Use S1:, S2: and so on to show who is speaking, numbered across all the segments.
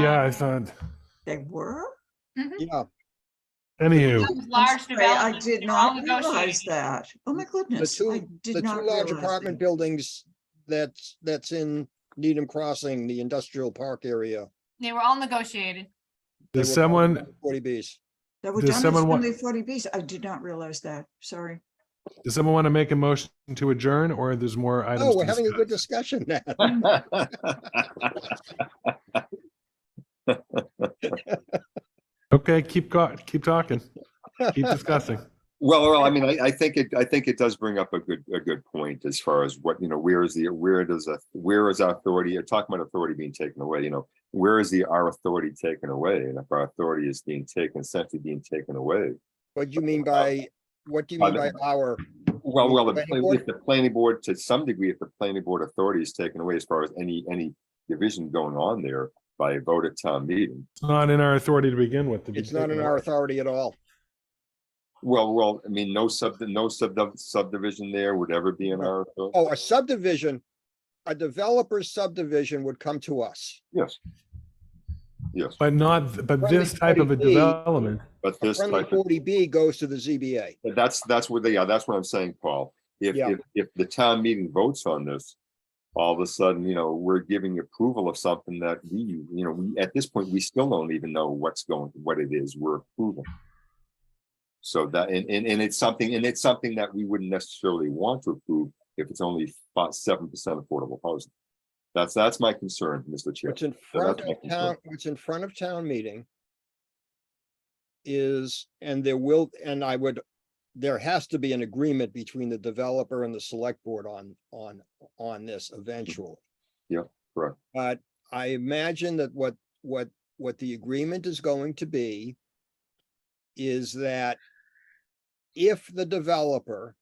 S1: Yeah, I
S2: Um,
S1: thought,
S3: They were?
S4: Yeah,
S1: anywho,
S2: Those
S3: I'm
S2: Large
S3: sorry, I
S2: developments,
S3: did
S2: they're all
S3: not realize
S2: negotiated.
S3: that. Oh, my
S4: the
S3: goodness. I
S4: two, the
S3: did
S4: two
S3: not
S4: large
S3: realize.
S4: apartment
S3: that.
S4: buildings that's, that's in Needham Crossing, the industrial park area.
S2: They were all negotiated.
S4: they
S1: does
S4: were
S1: someone,
S4: Forty Bs.
S3: They were
S1: Does
S3: done as
S1: someone wa-
S3: only forty Bs. I did not realize that. Sorry.
S1: does someone want to make a motion to adjourn or there's more items?
S4: Oh,
S1: to
S4: we're having a
S1: discuss?
S4: good discussion now.
S1: Okay, keep go, keep talking, keep discussing.
S5: Well, well, I mean, I, I think it, I think it does bring up a good, a good point as far as what, you know, where is the, where does, a- where is our authority, you're talking about authority being taken away, you know, where is the, our authority taken away? And if our authority is being taken, essentially being taken away.
S4: What do you mean by, what do you mean by our?
S5: Well, well, if
S4: Planning board?
S5: if the planning board, to some degree, if the planning board authority is taken away as far as any, any division going on there by a vote at town meeting.
S1: It's not in our authority to begin with. to be
S4: It's not in
S1: taken
S4: our
S1: away.
S4: authority at all.
S5: Well, well, I mean, no sub, no sub subdivision there would ever be in our. authority.
S4: Oh, a subdivision, a developer's subdivision would come to us.
S5: Yes. Yes,
S1: But not, but
S4: Friendly
S1: this type of a
S4: 40B.
S1: development,
S5: but
S4: A
S5: this
S4: friendly
S5: type of.
S4: forty B goes to the ZBA.
S5: But That's, that's what they, yeah, that's what I'm saying, Paul. If,
S4: Yeah.
S5: if, if the town meeting votes on this, all of a sudden, you know, we're giving approval of something that we, you know, we, at this point, we still don't even know what's going, what it is we're approving. So that, and, and, and it's something, and it's something that we wouldn't necessarily want to approve if it's only about seven percent affordable housing. That's, that's my concern, Mr. Chair.
S4: What's in front
S5: that's my
S4: of
S5: concern.
S4: town, what's in front of town meeting is, and there will, and I would, there has to be an agreement between the developer and the select board on, on, on this eventually.
S5: Mm-hmm. Yeah, correct.
S4: But I imagine that what, what, what the agreement is going to be is that if the developer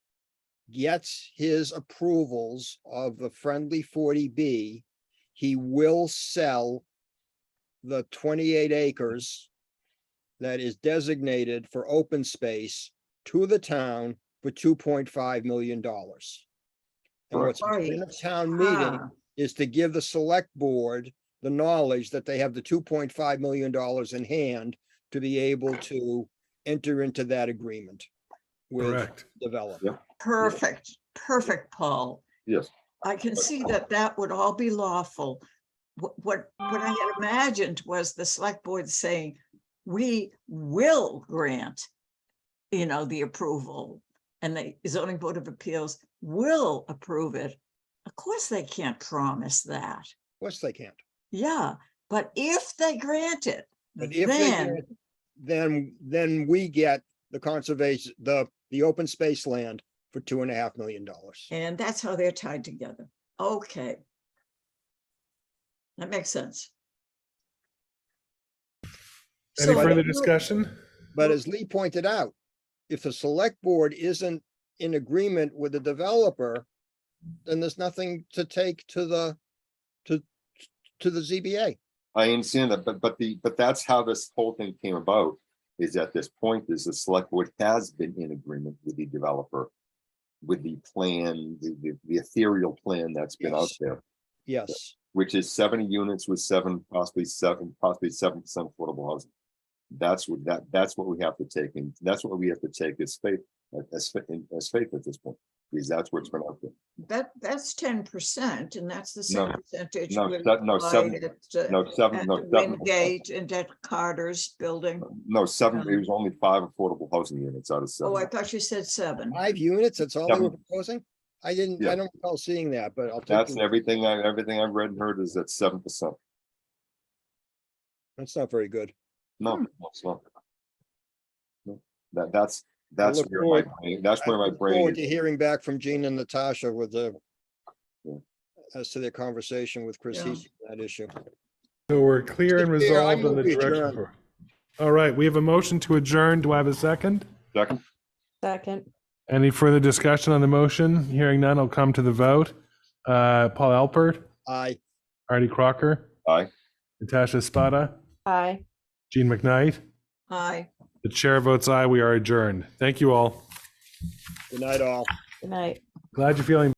S4: gets his approvals of the friendly forty B, he will sell the twenty-eight acres that is designated for open space to the town for two point five million dollars. And
S5: Right.
S4: what's in
S3: Right.
S4: the town meeting
S3: Ah,
S4: is to give the select board the knowledge that they have the two point five million dollars in hand to be able to enter into that agreement with
S1: correct?
S4: developer.
S5: Yeah.
S3: Perfect, perfect, Paul.
S5: Yes.
S3: I can see that that would all be lawful. What, what, what I had imagined was the select board saying, we will grant, you know, the approval. And the zoning board of appeals will approve it. Of course, they can't promise that.
S4: Of course they can't.
S3: Yeah, but if they grant it,
S4: But if they
S3: then,
S4: grant- Then, then we get the conservation, the, the open space land for two and a half million dollars.
S3: and that's how they're tied together. Okay. That makes sense.
S1: Any
S3: So-
S1: further discussion?
S4: But as Lee pointed out, if the select board isn't in agreement with the developer, then there's nothing to take to the, to, to the ZBA.
S5: I understand that, but, but the, but that's how this whole thing came about, is at this point, is the select board has been in agreement with the developer. With the plan, the, the- the ethereal plan that's been out
S4: Yes.
S5: there,
S4: Yes,
S5: which is seventy units with seven, possibly seven, possibly seven percent affordable housing. That's what, that, that's what we have to take, and that's what we have to take as faith, as, fa- as faith at this point, because that's what's been out there.
S3: That, that's ten percent, and that's the
S5: No,
S3: same percentage.
S5: no,
S3: we
S5: that- no, seven-
S3: applied at, uh,
S5: No, seven,
S3: At
S5: no,
S3: the
S5: seven.
S3: Wingate and at Carter's building.
S5: No, seven, it
S3: Um,
S5: was only five affordable housing units out of
S3: Oh, I
S5: seven.
S3: thought you said seven.
S4: five units, that's all they were
S5: Yeah.
S4: proposing? I didn't, I
S5: Yeah.
S4: don't recall seeing that, but I'll take,
S5: That's
S4: your-
S5: everything, I everything I've read and heard is at seven percent.
S4: that's not very good.
S5: No,
S3: Hmm.
S5: no, it's not. No, That, that's,
S4: I
S5: that's
S4: look
S5: where my,
S4: forward-
S5: brain- that's where
S4: I
S5: my
S4: look Forward
S5: brain
S4: to
S5: is.
S4: hearing back from Gene and Natasha with the
S5: Yeah.
S4: as to their conversation with Chris
S3: Yeah.
S4: Heasy, on that issue.
S1: So we're clear and
S4: Mr. Chair, I
S1: resolved on the
S4: move we adjourn.
S1: direction. for- All right, we have a motion to adjourn. Do I have a second?
S5: Second,
S6: Second,
S1: Any further discussion on the motion? Hearing none, I'll come to the vote. Uh, Paul Alpert,
S4: I,
S1: Artie Crocker,
S5: aye,
S1: Natasha Spada,
S6: aye.
S1: Gene McKnight.
S3: Aye.
S1: The chair votes aye. We are adjourned. Thank you all.
S4: good night all.
S6: Good night.
S1: Glad you're feeling